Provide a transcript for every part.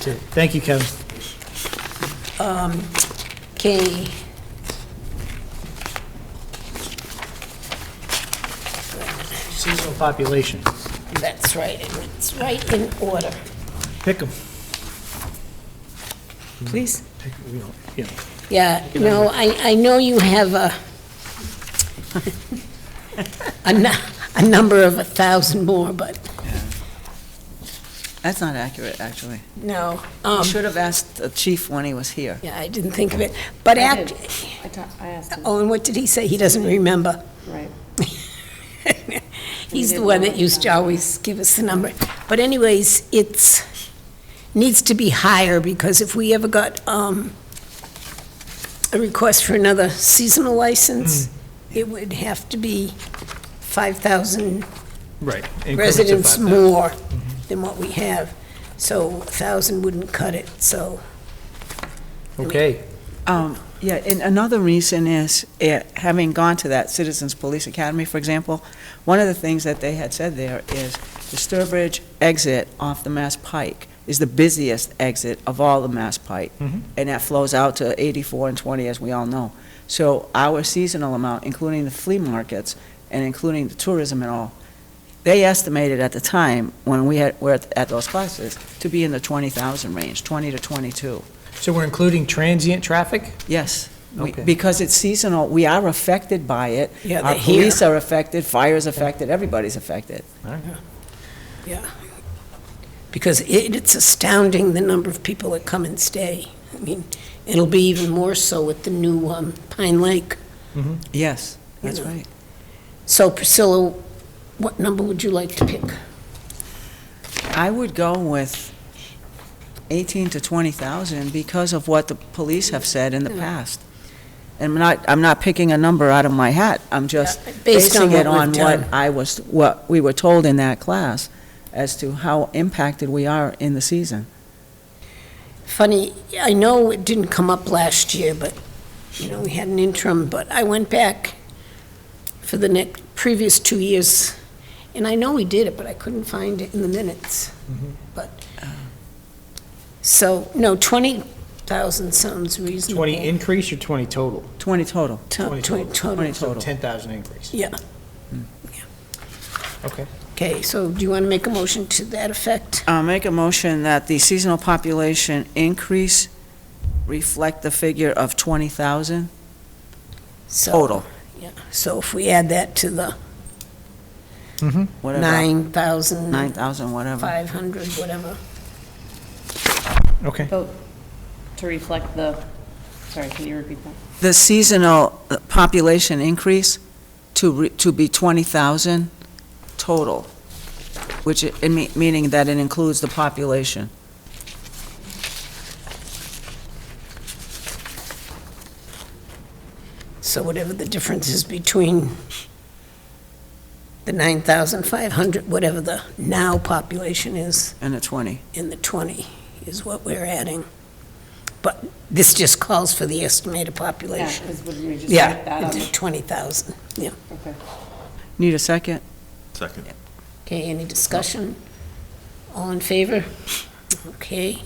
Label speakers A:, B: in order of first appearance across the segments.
A: too. Thank you, Kevin.
B: Okay.
A: Seasonal population,
B: That's right, and it's right in order.
A: pick them.
B: Please?
A: Pick, you know, you know.
B: Yeah, no, I, I know you have a, a nu- a number of a thousand more, but
C: That's not accurate, actually.
B: no.
C: You
B: um,
C: should have asked the chief when he was here.
B: Yeah, I didn't think of it, but
D: I did.
B: act,
D: I ta- I asked him,
B: oh, and what did he say? He doesn't remember.
D: right.
B: He's the one that used to always give us the number. But anyways, it's, needs to be higher, because if we ever got um, a request for another seasonal license,
A: Hmm.
B: it would have to be 5,000
A: Right. increments of Mm-hmm.
B: residents
A: 5,000.
B: more than what we have. So 1,000 wouldn't cut it, so,
A: Okay,
C: Um, Yeah, and another reason is, eh, having gone to that Citizens Police Academy, for example, one of the things that they had said there is the Sturbridge exit off the Mass Pike is the busiest exit of all the Mass Pike.
A: Mhm.
C: And that flows out to 84 and 20, as we all know. So our seasonal amount, including the flea markets and including the tourism and all, they estimated at the time, when we had, were at- at those classes, to be in the 20,000 range, 20 to 22.
A: so we're including transient traffic?
C: Yes, we-
A: Okay.
C: because it's seasonal, we are affected by it.
B: Yeah,
C: Our
B: they're here.
C: police are affected, fire's affected, everybody's affected.
B: yeah. Because it- it's astounding, the number of people that come and stay. I mean, it'll be even more so with the new um, Pine Lake
C: Yes, that's
B: Yeah.
C: right.
B: So Priscilla, what number would you like to pick?
C: I would go with 18 to 20,000 because of what the police have said in the past. And I'm not, I'm not picking a number out of my hat, I'm just
B: Based on
C: basing
B: what
C: it on
B: we've
C: what
B: done.
C: I was, what we were told in that class as to how impacted we are in the season.
B: Funny, I know it didn't come up last year, but, you know, we had an interim, but I went back for the next, previous two years, and I know we did it, but I couldn't find it in the minutes.
C: Mm-hmm.
B: But, so, no, 20,000 sounds reasonable.
A: 20 increase or 20 total?
C: 20 total.
B: To-
A: 20
B: to-
A: total.
B: Total,
A: So
C: total.
A: 10,000 increase. Hmm.
B: yeah.
A: Okay.
B: Okay, so do you want to make a motion to that effect?
C: I'll Uh, make a motion that the seasonal population increase reflect the figure of 20,000
B: So-
C: total,
B: So if we add that to the
A: Mm-hmm.
C: whatever.
B: 9,000.
C: 9,000, whatever.
B: 500, whatever.
A: Okay.
D: Vote to reflect the, sorry, can you repeat that?
C: The seasonal uh, population increase to, re- to be 20,000 total, which, it- it mea- meaning that it includes the population.
B: So whatever the difference is between the 9,500, whatever the now population is,
C: And the 20.
B: and the 20 is what we're adding. But this just calls for the estimated
D: Yeah,
B: population.
D: 'cause wouldn't we just put that
B: Yeah,
D: on
B: into
D: the-
B: 20,000.
D: okay.
C: Need a second?
E: Second.
B: Okay, any discussion? All in favor? Okay.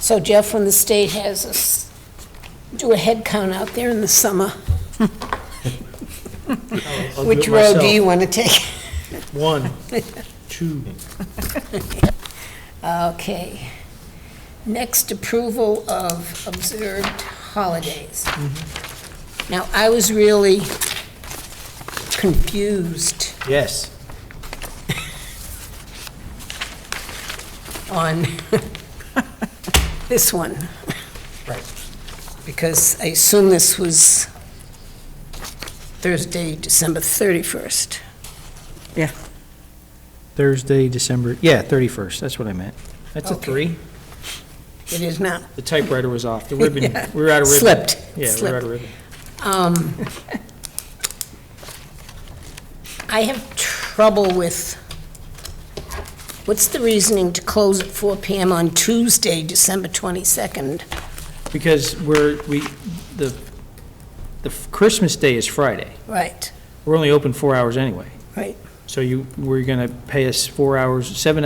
B: So Jeff, when the state has us do a head count out there in the summer,
A: I'll do
B: which
A: it
B: road do
A: myself.
B: you want to take?
A: One, two.
B: Okay. Next, approval of observed holidays.
A: Mm-hmm.
B: Now, I was really confused
A: Yes.
B: on this one.
A: Right.
B: Because I assume this was Thursday, December 31st.
A: Thursday, December, yeah, 31st, that's what I meant. That's a
B: Okay.
A: three.
B: It is not.
A: The typewriter was off, the ribbon, we were out of ribbon.
B: Slipped.
A: Yeah, we were out
B: Slipped.
A: of ribbon.
B: Um, I have trouble with, what's the reasoning to close at 4 PM on Tuesday, December 22nd?
A: Because we're, we, the, the Christmas Day is Friday.
B: Right,
A: We're only open four hours anyway.
B: right.
A: So you, we're going to pay us four hours, seven